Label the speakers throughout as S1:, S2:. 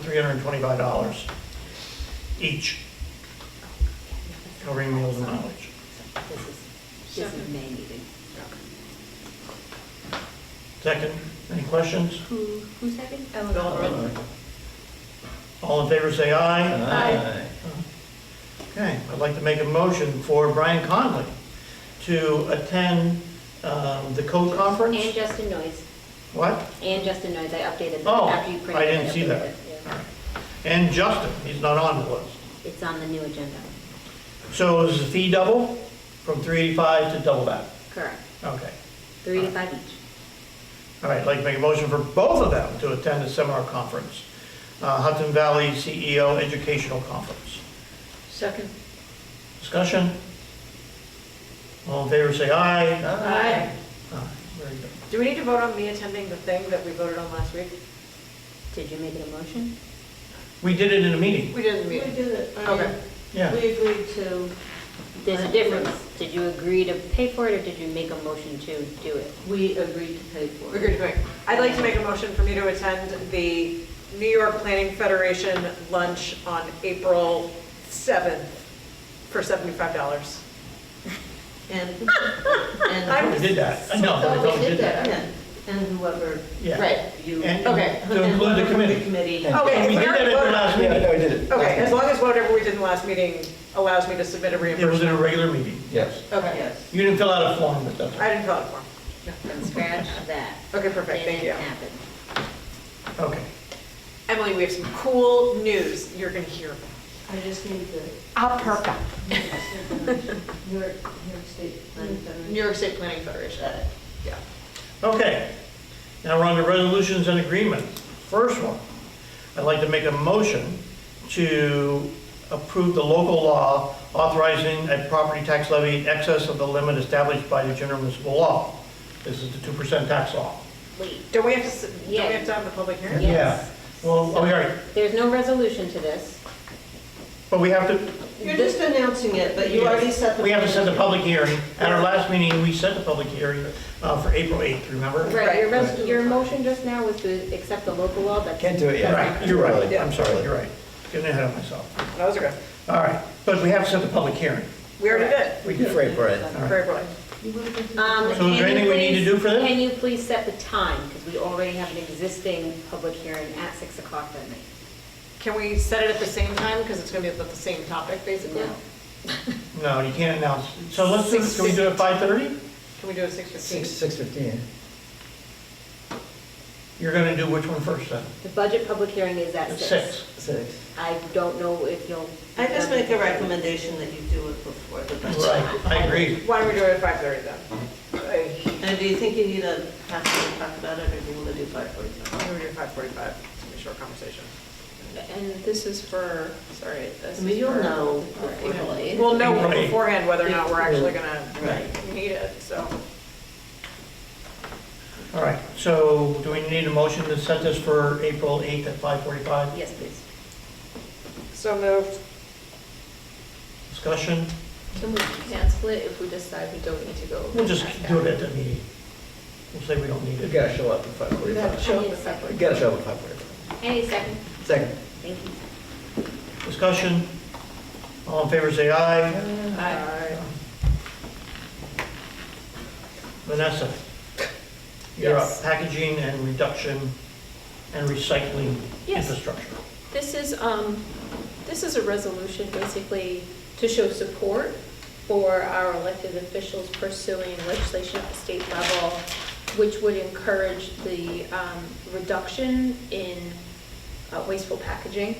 S1: three hundred and twenty-five dollars each, covering meals and mileage.
S2: This is, this is May meeting.
S1: Second, any questions?
S2: Who, who second?
S3: Eleanor.
S1: All in favor, say aye.
S3: Aye.
S1: Okay, I'd like to make a motion for Brian Conley to attend um, the code
S2: And
S1: conference.
S2: Justin Noyes,
S1: What?
S2: and Justin Noyes, I updated them
S1: Oh,
S2: after you printed.
S1: I didn't see
S2: updated
S1: that.
S2: it, yeah.
S1: And Justin, he's not on the list.
S2: It's on the new agenda,
S1: So is the fee double from 385 to double that?
S2: correct,
S1: Okay.
S2: three to five each.
S1: All right, I'd like to make a motion for both of them to attend the seminar conference, uh, Hudson Valley CEO Educational Conference.
S3: Second.
S1: Discussion? All in favor, say aye.
S3: Aye.
S1: Aye, Very good.
S3: Do we need to vote on me attending the thing that we voted on last week?
S2: Did you make it a motion?
S1: We did it in a meeting,
S3: We didn't
S4: We
S3: meet.
S4: did it. I
S3: Okay.
S1: yeah.
S4: mean, We agreed to,
S2: There's a difference, did you agree to pay for it, or did you make a motion to do it?
S4: we agreed to pay for
S3: We're good
S4: it.
S3: to make- I'd like to make a motion for me to attend the New York Planning Federation lunch on April 7th for $75.
S4: And,
S3: I'm
S1: We
S4: and.
S1: did that. No,
S4: Oh,
S1: we don't did that.
S4: yeah. And whoever,
S1: Yeah.
S4: right, you.
S1: And
S3: Okay.
S1: to include the
S4: whoever from
S1: committee.
S4: committee.
S5: Yeah.
S3: Okay,
S1: And we
S3: so
S1: did
S3: now
S1: that at the
S3: vote-
S1: last
S5: Yeah,
S1: meeting.
S5: no, we did it.
S3: Okay, as long as whatever we did in the last meeting allows me to submit a
S1: It was in a
S3: reimbursement.
S1: regular meeting.
S5: Yes.
S3: Okay,
S4: Yes.
S1: You didn't fill out a form, but that's,
S3: I didn't fill out a form.
S2: From scratch, that.
S3: Okay, perfect, thank you.
S2: Didn't happen.
S1: okay.
S3: Emily, we have some cool news you're going to hear.
S4: I just need the.
S3: I'll perk up.
S4: New York, New York State. Planning Federation.
S3: New York State Planning Federation. Yeah.
S1: Okay, now we're on to resolutions and agreements. First one, I'd like to make a motion to approve the local law authorizing a property tax levy in excess of the limit established by the general municipal law. This is the 2% tax law.
S2: Wait,
S3: Don't we have to, s- don't we
S2: Yeah.
S3: have to have the public hearing?
S1: Yeah.
S2: yes.
S1: Well, oh, yeah,
S2: There's no resolution to this.
S1: but we have to,
S4: You're just announcing it, but you already set the.
S1: we have to set the public hearing. At our last meeting, we set the public hearing uh, for April 8th, remember?
S2: Right, your, res-
S4: Right.
S2: your motion just now was to accept the local law, that's.
S5: Can't do it yet.
S1: Right, you're right,
S3: Yeah.
S1: I'm sorry, you're right. Getting ahead of myself.
S3: That was good.
S1: All right, but we have to set the public hearing.
S3: We already did.
S1: We
S5: You're
S1: did.
S5: Afraid, Brian.
S1: right.
S3: Very bright.
S2: Um,
S1: So is there
S2: can you
S1: anything we need to
S2: please-
S1: do for this?
S2: Can you please set the time, because we already have an existing public hearing at 6 o'clock that night.
S3: Can we set it at the same time, because it's going to be about the same topic, basically?
S2: No.
S1: No, you can't announce. So let's, do- can we do it 5:30?
S3: Can we do it six fifteen?
S5: Six, six fifteen.
S1: You're going to do which one first then?
S2: The budget public hearing is at
S1: At
S2: 6.
S1: 6.
S5: Six.
S2: I don't know if you'll.
S4: I just make a recommendation that you do it before the budget.
S1: Right, I agree.
S3: Why don't we do it at five thirty
S1: Uh-huh.
S3: then?
S4: And do you think you need a half hour to talk about it, or do you want to do five
S3: Why
S4: forty-five?
S3: don't we do five forty-five? It's gonna be a short conversation.
S6: And this is for, sorry, this
S4: I mean,
S6: is
S4: you'll
S6: for
S4: know.
S6: April 8th.
S3: We'll know
S1: Right.
S3: beforehand whether or not we're actually gonna
S4: Right.
S3: need it, so.
S1: All right, so do we need a motion to set this for April 8th at 5:45?
S2: Yes, please.
S3: So moved.
S1: Discussion?
S6: Can we cancel it if we decide we don't need to go?
S1: We'll just do it at the meeting. We'll say we don't need
S5: You
S1: it.
S5: gotta show up at five forty-five.
S2: I need a second.
S5: You gotta show up at five forty-five.
S2: I need a second.
S5: Second.
S2: Thank you.
S1: Discussion? All in favor, say aye.
S3: Aye.
S1: Vanessa? You're up.
S6: Yes.
S1: Packaging and reduction and recycling
S6: Yes.
S1: infrastructure.
S6: This is, um, this is a resolution basically to show support for our elected officials pursuing legislation at the state level, which would encourage the, um, reduction in uh, wasteful packaging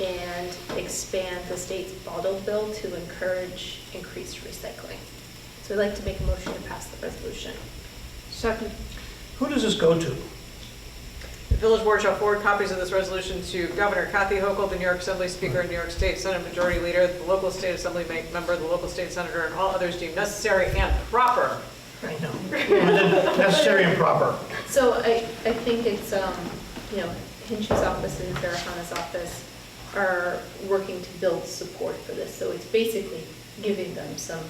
S6: and expand the state's bottle bill to encourage increased recycling. So I'd like to make a motion to pass the resolution.
S3: Second.
S1: Who does this go to?
S3: The village board shall forward copies of this resolution to Governor Kathy Hochul, the New York Assembly Speaker, and New York State Senate Majority Leader, the local state assembly ma- member, the local state senator, and all others deemed necessary and proper.
S1: I know. Necessary and proper.
S6: So I, I think it's, um, you know, Hinch's office and Farahana's office are working to build support for this, so it's basically giving them some,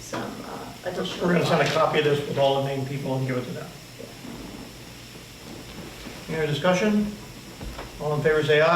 S6: some uh, additional.
S1: We're gonna send a copy of this with all the named people and give it to them. Any other discussion? All in favor, say aye.